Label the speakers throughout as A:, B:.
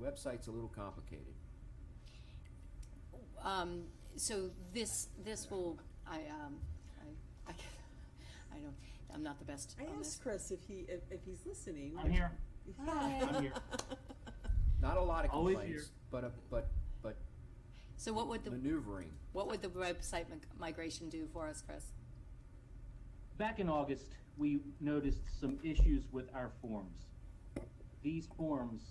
A: website's a little complicated.
B: Um, so this, this will, I, um, I, I, I don't, I'm not the best
C: I
B: on this.
C: asked Chris if he, if, if he's listening.
D: I'm here.
B: Hi.
D: I'm here.
A: Not a lot of
D: Always
A: complaints,
D: here.
A: but, a- but, but
B: So what would the,
A: maneuvering.
B: what would the website mig- migration do for us, Chris?
D: Back in August, we noticed some issues with our forms. These forms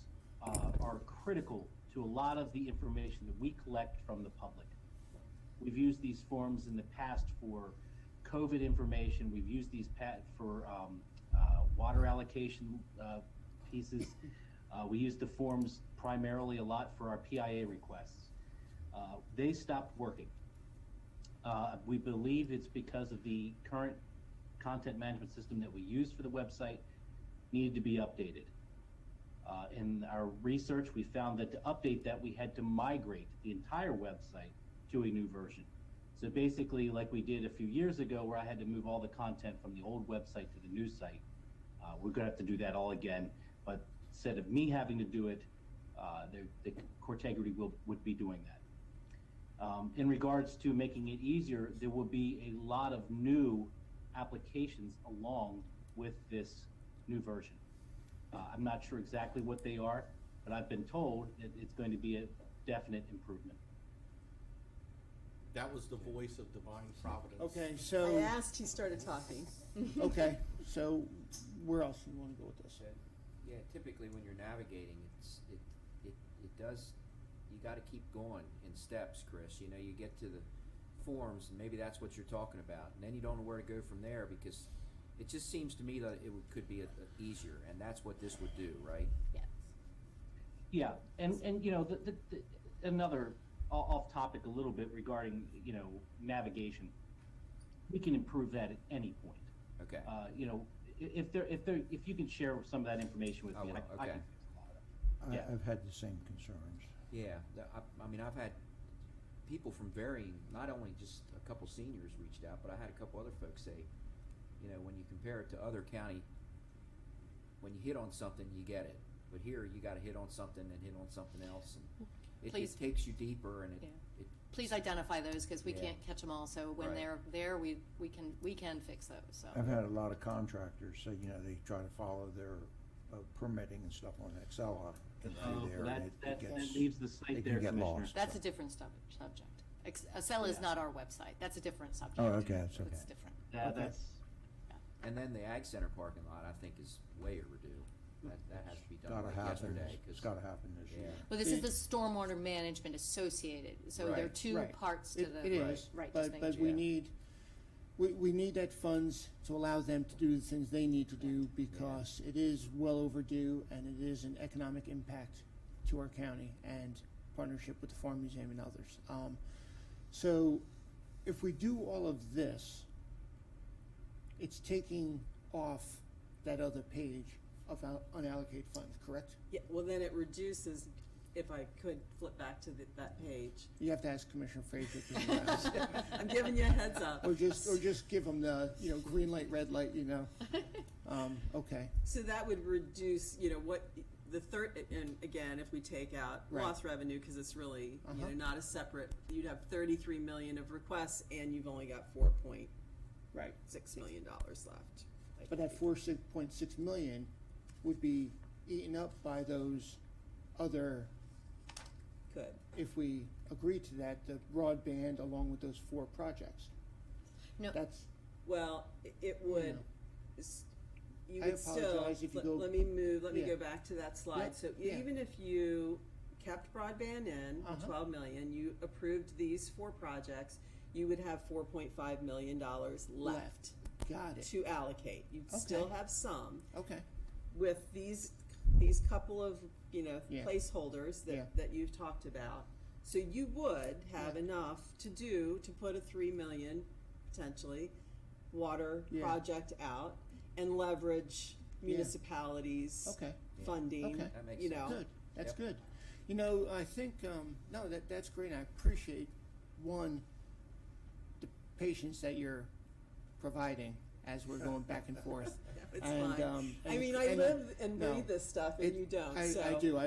D: uh, are critical to a lot of the information that we collect from the public. We've used these forms in the past for COVID information. We've used these pat for um, uh, water allocation uh, pieces. Uh, we use the forms primarily a lot for our PIA requests. Uh, they stopped working. Uh, we believe it's because of the current content management system that we use for the website needed to be updated. Uh, in our research, we found that to update that, we had to migrate the entire website to a new version. So basically, like we did a few years ago, where I had to move all the content from the old website to the new site, uh, we're going to have to do that all again. But instead of me having to do it, uh, the, the Cortegrity will, would be doing that. Um, in regards to making it easier, there will be a lot of new applications along with this new version. Uh, I'm not sure exactly what they are, but I've been told that it's going to be a definite improvement.
E: That was the voice of divine providence.
F: Okay,
C: I
F: so,
C: asked, he started talking.
F: okay, so where else do you wanna go with this?
A: that, yeah, typically when you're navigating, it's, it, it, it does, you gotta keep going in steps, Chris, you know, you get to the forms, and maybe that's what you're talking about, and then you don't know where to go from there, because it just seems to me that it would, could be a, a easier, and that's what this would do, right?
B: Yes.
D: Yeah, and, and, you know, the, the, the- another, o- off topic a little bit regarding, you know, navigation. We can improve that at any point.
A: Okay,
D: Uh, you know, i- if there, if there, if you can share some of that information with
A: I
D: me, I,
A: will, Oh,
D: I
A: okay.
D: can. fix a lot of it.
G: I,
D: Yeah.
G: I've had the same concerns.
A: yeah, the- I, I mean, I've had people from varying, not only just a couple seniors reached out, but I had a couple other folks say, you know, when you compare it to other county, when you hit on something, you get it. But here, you gotta hit on something and hit on something else, and it,
B: Please.
A: it takes you deeper, and it,
B: Yeah.
A: it,
B: Please identify those, cause we
A: Yeah.
B: can't catch them all, so when
A: Right.
B: they're there, we, we can, we can fix those,
D: Oh.
B: so.
G: I've had a lot of contractors say, you know, they try to follow their uh, permitting and stuff on Excel. and
D: Oh,
G: through there,
D: that-
G: and it-
D: that-
G: it
D: that
G: gets-
D: leaves the site
G: it can
D: there,
G: get
D: Commissioner.
G: lost.
B: That's a different sub- subject. Ex- Acela is
D: Yeah.
B: not our website, that's a different subject.
G: okay, that's
B: It's
G: okay.
B: different.
D: That,
F: Okay.
D: that's,
A: and then the Ag Center parking lot, I think, is way overdue. That, that has to be done
G: Gotta
A: like
G: happen,
A: yesterday,
G: it's
A: 'cause-
G: gotta happen this
A: Yeah.
G: year.
B: Well, this is
F: It-
B: the stormwater management associated, so there are
A: Right.
B: two
F: Right.
B: parts to
F: It,
B: the.
F: it is,
B: Right, just
F: but,
B: making
F: but
B: sure.
F: we
A: Yeah.
F: need, we, we need that funds to allow them to do the things they need to do because it is well overdue and it is an economic impact to our county and partnership with the Farm Museum and others. Um, so if we do all of this, it's taking off that other page of our unallocated funds, correct?
C: Yeah, well, then it reduces, if I could flip back to the, that page.
F: You have to ask Commissioner Frazier. if he allows.
C: I'm giving you a heads up.
F: Or just, or just give them the, you know, green light, red light, you know? Um, okay,
C: So that would reduce, you know, what, the third, and again, if we take out
F: Right.
C: lost revenue, because it's really, you know,
F: Uh-huh.
C: not a separate, you'd have thirty-three million of requests, and you've only got four point
F: right.
C: six million dollars left.
F: But that four six point six million would be eaten up by those other,
C: Could.
F: if we agree to that, the broadband along with those four projects.
B: No.
F: That's,
C: Well, i- it would, s- you
F: I
C: would still,
F: apologize if you
C: let-
F: go-
C: let me move, let me
F: Yeah.
C: go back to that slide.
F: Yeah,
C: So e-
F: yeah.
C: even if you kept broadband in, the
F: Uh-huh.
C: twelve million, you approved these four projects, you would have four point five million dollars left
F: Left. got it,
C: to allocate. You'd still
F: Okay.
C: have some
F: okay.
C: with these, these couple of, you know,
F: Yeah.
C: placeholders
F: Yeah.
C: that, that you've talked about. So you would have
F: Yeah.
C: enough to do, to put a three million, potentially, water
F: Yeah.
C: project out and leverage
F: Yeah.
C: municipalities.
F: Okay.
A: Yeah.
C: Funding,
F: Okay.
A: That makes
C: you know.
F: Good, that's
A: Yep.
F: good. You know, I think, um, no, that, that's great, I appreciate, one, the patience that you're providing as we're going back and forth.
C: It's
F: And,
C: fine.
F: um,
C: I
F: and-
C: mean, I
F: and-
C: live and
F: no.
C: read this stuff and
F: It-
C: you don't,
F: I,
C: so.
F: I do, I